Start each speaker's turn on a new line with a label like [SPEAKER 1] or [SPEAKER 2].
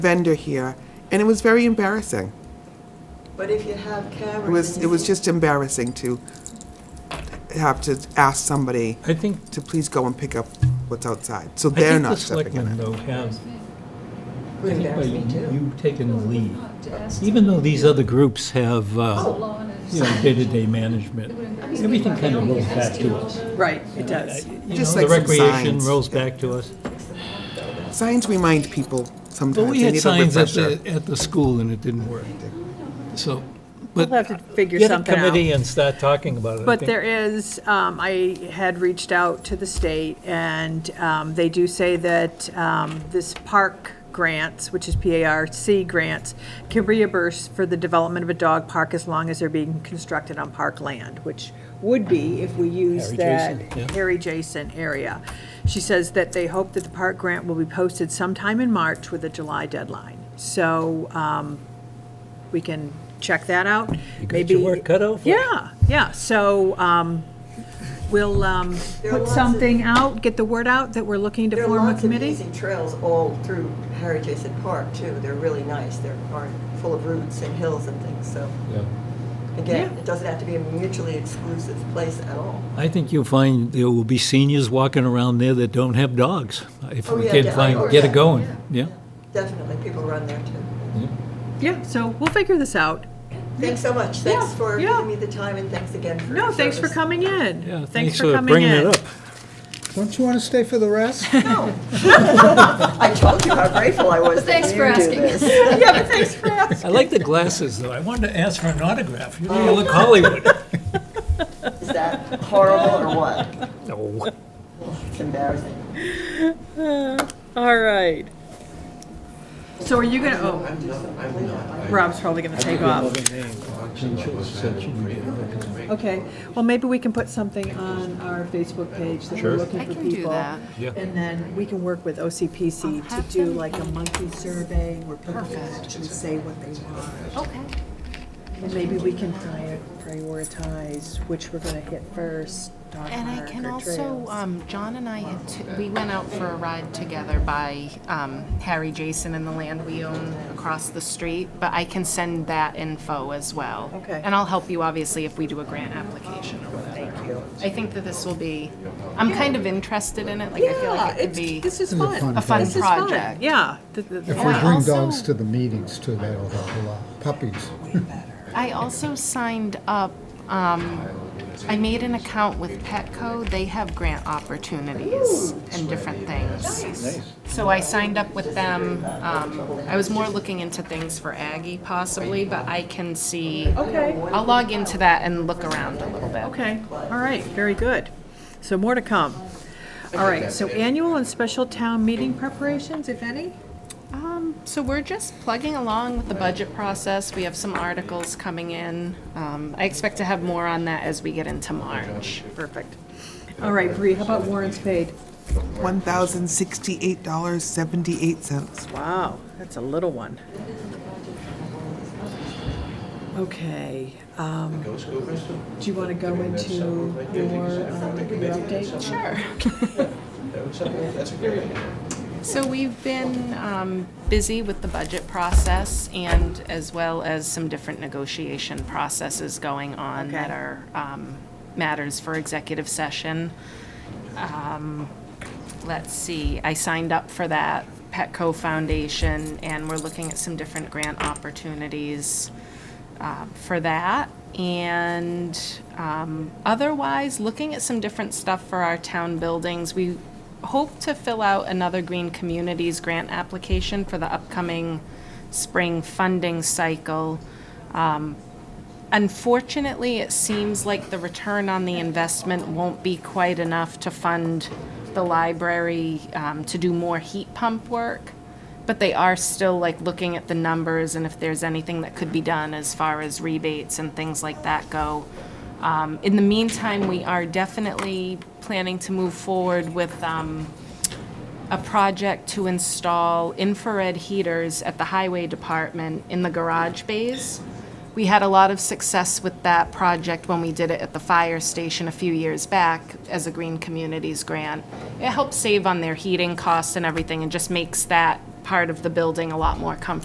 [SPEAKER 1] vendor here, and it was very embarrassing.
[SPEAKER 2] But if you have cameras.
[SPEAKER 1] It was,
[SPEAKER 2] and
[SPEAKER 1] it was
[SPEAKER 2] you-
[SPEAKER 1] just embarrassing to have to ask somebody
[SPEAKER 3] I think,
[SPEAKER 1] to please go and pick up what's outside, so
[SPEAKER 3] I
[SPEAKER 1] they're
[SPEAKER 3] think the
[SPEAKER 1] not stepping in
[SPEAKER 3] selectmen,
[SPEAKER 1] it.
[SPEAKER 3] though, have, I
[SPEAKER 2] Would
[SPEAKER 3] think by
[SPEAKER 2] embarrass me
[SPEAKER 3] you-
[SPEAKER 2] too.
[SPEAKER 3] you've taken the lead.
[SPEAKER 4] To ask
[SPEAKER 3] Even though these other groups have,
[SPEAKER 2] Oh,
[SPEAKER 3] uh,
[SPEAKER 4] law and-
[SPEAKER 3] you know, day-to-day management, everything kind of rolls back to us. Uh,
[SPEAKER 2] Right, it does.
[SPEAKER 3] You know,
[SPEAKER 1] Just
[SPEAKER 3] the
[SPEAKER 1] like some
[SPEAKER 3] recreation
[SPEAKER 1] signs.
[SPEAKER 3] rolls back to us.
[SPEAKER 1] Signs remind people
[SPEAKER 3] But
[SPEAKER 1] sometimes,
[SPEAKER 3] we
[SPEAKER 1] they
[SPEAKER 3] had
[SPEAKER 1] need a
[SPEAKER 3] signs at the,
[SPEAKER 1] refresher.
[SPEAKER 3] at the school and it didn't work. So,
[SPEAKER 5] We'll
[SPEAKER 3] but
[SPEAKER 5] have to figure
[SPEAKER 3] get a
[SPEAKER 5] something
[SPEAKER 3] committee
[SPEAKER 5] out.
[SPEAKER 3] and start talking about it. I
[SPEAKER 5] But
[SPEAKER 3] think.
[SPEAKER 5] there is, um, I had reached out to the state, and um, they do say that um, this park grants, which is P-A-R-C grants, can reimburse for the development of a dog park as long as they're being constructed on park land, which would be if we use
[SPEAKER 3] Harry
[SPEAKER 5] that
[SPEAKER 3] Jason, yeah.
[SPEAKER 5] Harry Jason area. She says that they hope that the park grant will be posted sometime in March with a July deadline. So um, we can check that out.
[SPEAKER 3] You got
[SPEAKER 5] Maybe
[SPEAKER 3] your work cut out for you.
[SPEAKER 5] Yeah, yeah, so um, we'll um,
[SPEAKER 2] There are
[SPEAKER 5] put
[SPEAKER 2] lots of-
[SPEAKER 5] something out, get the word out that we're looking to
[SPEAKER 2] There
[SPEAKER 5] form
[SPEAKER 2] are
[SPEAKER 5] a
[SPEAKER 2] lots of
[SPEAKER 5] committee.
[SPEAKER 2] amazing trails all through Harry Jason Park too. They're really nice. They're are full of roots and hills and things. So
[SPEAKER 3] Yeah.
[SPEAKER 2] again,
[SPEAKER 5] Yeah.
[SPEAKER 2] it doesn't have to be a mutually exclusive place at all.
[SPEAKER 3] I think you'll find there will be seniors walking around there that don't have dogs. If
[SPEAKER 2] Oh,
[SPEAKER 3] we
[SPEAKER 2] yeah,
[SPEAKER 3] can
[SPEAKER 2] yeah. Oh,
[SPEAKER 3] find, get
[SPEAKER 2] yeah.
[SPEAKER 3] it going, yeah.
[SPEAKER 2] Definitely, people run there too.
[SPEAKER 5] Yeah, so we'll figure this out.
[SPEAKER 2] Thanks so much. Thanks
[SPEAKER 5] Yeah,
[SPEAKER 2] for
[SPEAKER 5] yeah.
[SPEAKER 2] giving me the time and thanks again for.
[SPEAKER 5] No,
[SPEAKER 2] your
[SPEAKER 5] thanks for
[SPEAKER 2] service.
[SPEAKER 5] coming in.
[SPEAKER 3] Yeah,
[SPEAKER 5] Thanks for coming
[SPEAKER 3] bringing
[SPEAKER 5] in.
[SPEAKER 3] it up.
[SPEAKER 6] Don't you want to stay for the rest?
[SPEAKER 2] I told you how grateful I was. that
[SPEAKER 4] Thanks
[SPEAKER 2] you
[SPEAKER 4] for
[SPEAKER 2] do
[SPEAKER 4] asking.
[SPEAKER 2] this.
[SPEAKER 5] Yeah, but thanks for asking.
[SPEAKER 3] I like the glasses, though. I wanted to ask for an autograph. You know, you look Hollywood.
[SPEAKER 2] Is that horrible or what?
[SPEAKER 3] No.
[SPEAKER 2] It's embarrassing.
[SPEAKER 5] All right. So are you gonna, oh, Rob's probably gonna take off. Okay, well, maybe we can put something on our Facebook page that we're looking
[SPEAKER 4] I
[SPEAKER 5] for
[SPEAKER 4] can do
[SPEAKER 5] people.
[SPEAKER 4] that.
[SPEAKER 3] Yeah.
[SPEAKER 5] And then we can work with OCPC to do like a monthly survey where people can actually say what they want.
[SPEAKER 4] Okay.
[SPEAKER 5] And maybe we can prior- prioritize which we're gonna hit first, dog
[SPEAKER 4] And I
[SPEAKER 5] park
[SPEAKER 4] can
[SPEAKER 5] or
[SPEAKER 4] also,
[SPEAKER 5] trails.
[SPEAKER 4] um, John and I, had t- we went out for a ride together by um, Harry Jason and the land we own across the street, but I can send that info as well.
[SPEAKER 5] Okay.
[SPEAKER 4] And I'll help you, obviously, if we do a grant application or whatever.
[SPEAKER 5] Thank you.
[SPEAKER 4] I think that this will be, I'm kind of interested in it, like, I feel like it could be
[SPEAKER 5] This is fun.
[SPEAKER 4] a fun
[SPEAKER 5] This is fun.
[SPEAKER 4] project.
[SPEAKER 5] Yeah. Th- th- th-
[SPEAKER 6] If we
[SPEAKER 4] I
[SPEAKER 6] bring
[SPEAKER 4] also-
[SPEAKER 6] dogs to the meetings too, that'll help a lot. Puppies.
[SPEAKER 4] I also signed up, um, I made an account with Petco. They have grant opportunities and different things. So I signed up with them. Um, I was more looking into things for Aggie possibly, but I can see.
[SPEAKER 5] Okay.
[SPEAKER 4] I'll log into that and look around a little bit.
[SPEAKER 5] Okay, all right, very good. So more to come. All right, so annual and special town meeting preparations, if any?
[SPEAKER 4] Um, so we're just plugging along with the budget process. We have some articles coming in. Um, I expect to have more on that as we get into March.
[SPEAKER 5] Perfect. All right, Bree, how about warrants paid?
[SPEAKER 1] $1,068.78.
[SPEAKER 5] Wow, that's a little one. Okay, um, do you want to go into your, um, your update?
[SPEAKER 4] Sure.
[SPEAKER 7] That's a great idea.
[SPEAKER 4] So we've been um, busy with the budget process and as well as some different negotiation processes going on
[SPEAKER 5] Okay.
[SPEAKER 4] that are um, matters for executive session. Um, Let's see, I signed up for that Petco Foundation and we're looking at some different grant opportunities uh, for that. And um, otherwise, looking at some different stuff for our town buildings. We hope to fill out another Green Communities grant application for the upcoming spring funding cycle. Um, Unfortunately, it seems like the return on the investment won't be quite enough to fund the library um, to do more heat pump work. But they are still like looking at the numbers and if there's anything that could be done as far as rebates and things like that go. Um, In the meantime, we are definitely planning to move forward with um, a project to install infrared heaters at the highway department in the garage bays. We had a lot of success with that project when we did it at the fire station a few years back as a Green Communities grant. It helps save on their heating costs and everything and just makes that part of the building a lot more comfortable